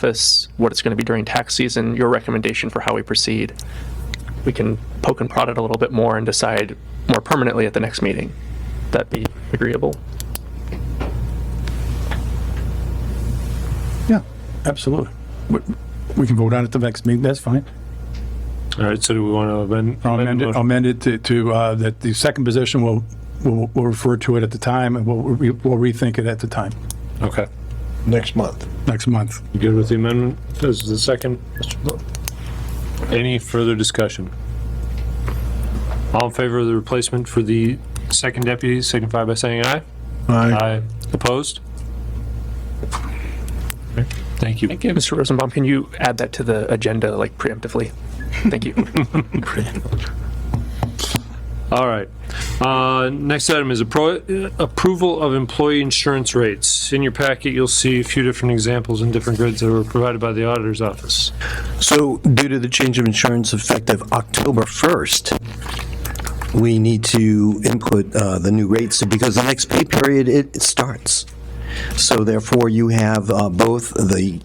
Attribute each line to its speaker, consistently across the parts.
Speaker 1: office, what it's going to be during tax season, your recommendation for how we proceed. We can poke and prod it a little bit more and decide more permanently at the next meeting. That be agreeable?
Speaker 2: Yeah, absolutely. We- We can vote on it the next meeting, that's fine.
Speaker 3: All right, so do we want to amend?
Speaker 2: I'll amend it,
Speaker 3: the
Speaker 2: I'll
Speaker 3: motion?
Speaker 2: amend it to- to, uh, that the second position will, will will refer to it at the time, and we'll re- we'll rethink it at the time,
Speaker 3: Okay.
Speaker 4: next month.
Speaker 2: next month.
Speaker 3: You good with the amendment? This is the second. Mr. Blow. Any further discussion? All in favor of the replacement for the second deputy, signify by saying aye.
Speaker 4: Aye.
Speaker 3: Aye. Opposed? Okay, Thank you.
Speaker 1: Mr. Rosenbaum, can you add that to the agenda like preemptively? Thank you.
Speaker 3: All right. Uh, Next item is appro- approval of employee insurance rates. In your packet, you'll see a few different examples and different grids that were provided by the auditor's office.
Speaker 4: So due to the change of insurance effective October 1st, we need to input uh, the new rates because the next pay period, it it starts. So therefore, you have uh, both the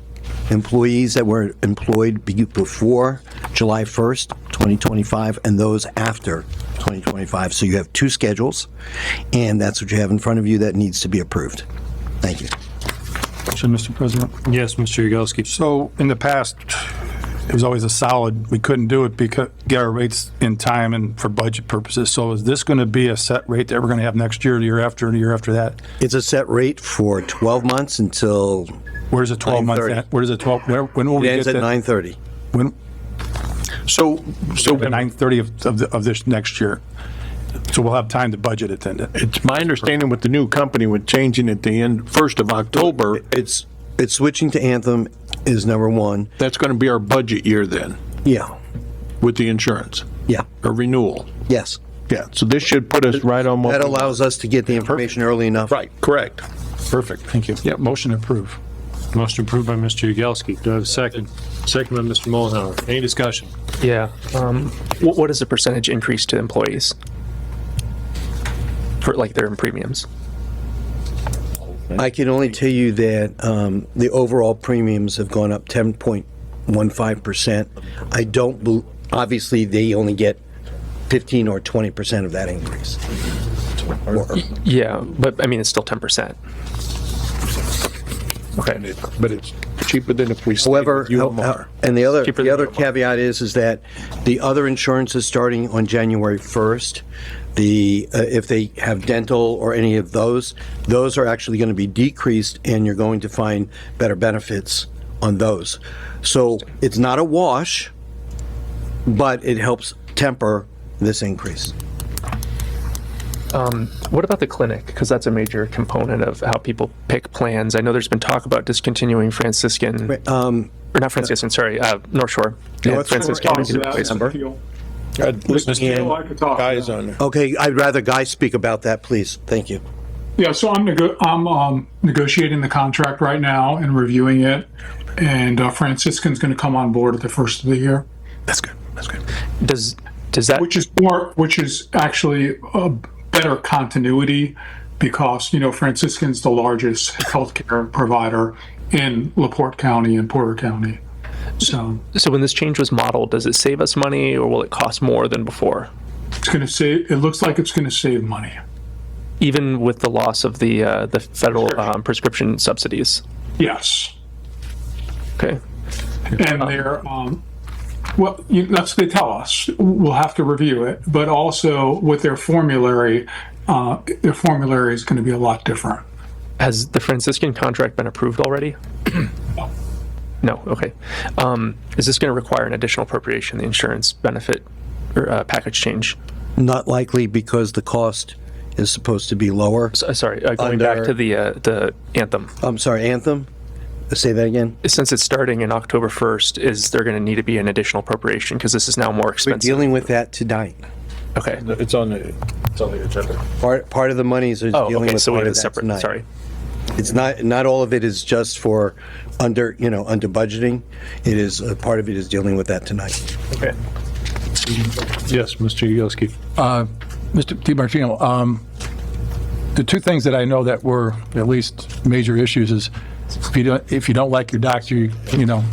Speaker 4: employees that were employed be- before July 1st, 2025, and those after 2025. So you have two schedules, and that's what you have in front of you that needs to be approved. Thank you.
Speaker 2: Should, Mr. President?
Speaker 3: Yes, Mr. Yagowski.
Speaker 2: So in the past, it was always a solid, we couldn't do it because, get our rates in time and for budget purposes. So is this going to be a set rate that we're going to have next year, the year after, and the year after that?
Speaker 4: It's a set rate for 12 months until
Speaker 2: Where's the 12-month,
Speaker 4: 9:30.
Speaker 2: at? where's the 12, where- when will we
Speaker 4: It
Speaker 2: get
Speaker 4: ends at
Speaker 2: that?
Speaker 4: 9:30.
Speaker 2: When,
Speaker 5: So, so
Speaker 2: the 9:30 of- of, the- of this next year. So we'll have time to budget it then.
Speaker 5: it's my understanding with the new company, with changing at the end, 1st of October,
Speaker 4: It's, it's switching to Anthem is number one.
Speaker 5: that's going to be our budget year then,
Speaker 4: Yeah,
Speaker 5: with the insurance,
Speaker 4: yeah,
Speaker 5: or renewal.
Speaker 4: yes.
Speaker 5: Yeah, so this should put us right on what.
Speaker 4: That allows us to get the information early enough.
Speaker 5: Right, correct.
Speaker 2: Perfect, thank you.
Speaker 5: Yep.
Speaker 2: Motion approved.
Speaker 3: Motion approved by Mr. Yagowski. Do I have a second? Second by Mr. Mullenhour. Any discussion?
Speaker 1: Yeah. um, What, what is the percentage increase to employees? For like their premiums?
Speaker 4: I can only tell you that um, the overall premiums have gone up 10.15%. I don't, bel- obviously, they only get 15 or 20% of that increase. Or-
Speaker 1: Yeah, but I mean, it's still 10%. Okay.
Speaker 5: But it's cheaper than if we stayed
Speaker 4: However,
Speaker 5: with UMR.
Speaker 4: and the other,
Speaker 1: Cheaper
Speaker 4: the
Speaker 1: than
Speaker 4: other
Speaker 1: Walmart.
Speaker 4: caveat is, is that the other insurance is starting on January 1st. The, uh, if they have dental or any of those, those are actually going to be decreased and you're going to find better benefits on those. So it's not a wash, but it helps temper this increase.
Speaker 1: What about the clinic? Because that's a major component of how people pick plans. I know there's been talk about discontinuing Franciscan,
Speaker 4: Um,
Speaker 1: or not Franciscan, sorry, uh, North Shore. and
Speaker 4: North Shore
Speaker 1: Franciscan
Speaker 4: is
Speaker 1: is the place.
Speaker 4: December.
Speaker 5: Mr.
Speaker 6: I could talk.
Speaker 5: Guys on there.
Speaker 4: Okay, I'd rather Guy speak about that, please. Thank you.
Speaker 6: Yeah, so I'm nego- I'm um, negotiating the contract right now and reviewing it, and uh, Franciscan's going to come on board at the first of the year,
Speaker 2: That's good, that's good.
Speaker 1: Does, does that,
Speaker 6: which is more, which is actually a better continuity because you know Franciscan's the largest healthcare provider in Laporte County and Porter County, so
Speaker 1: so when this change was modeled, does it save us money or will it cost more than before?
Speaker 6: it's going to save. It looks like it's going to save money.
Speaker 1: Even with the loss of the, uh, the federal um, prescription subsidies?
Speaker 6: Yes.
Speaker 1: Okay.
Speaker 6: and they're um, well you, that's what they tell us we'll have to review it but also with their formulary uh, their formulary is going to be a lot different
Speaker 1: Has the Franciscan contract been approved already? No, okay. Um, Is this going to require an additional appropriation, the insurance benefit or uh, package change?
Speaker 4: Not likely because the cost is supposed to be lower.
Speaker 1: S- uh, Sorry, uh, going back
Speaker 4: Under-
Speaker 1: to the, uh, the Anthem.
Speaker 4: I'm sorry, Anthem? Uh, Say that again?
Speaker 1: Since it's starting in October 1st, is there going to need to be an additional appropriation? Because this is now more
Speaker 4: We're
Speaker 1: expensive.
Speaker 4: dealing with that tonight.
Speaker 1: Okay.
Speaker 5: It's on the, it's on the agenda.
Speaker 4: Part, part of the monies is
Speaker 1: Oh,
Speaker 4: dealing
Speaker 1: okay,
Speaker 4: with
Speaker 1: so we
Speaker 4: part
Speaker 1: have it
Speaker 4: of that
Speaker 1: separate,
Speaker 4: tonight.
Speaker 1: sorry.
Speaker 4: It's not, not all of it is just for under, you know, under budgeting. It is, a part of it is dealing with that tonight.
Speaker 1: Okay.
Speaker 3: Yes, Mr. Yagowski.
Speaker 2: Mr. DiMartino, um, the two things that I know that were at least major issues is If you don't, if you don't like your doctor, you, you know,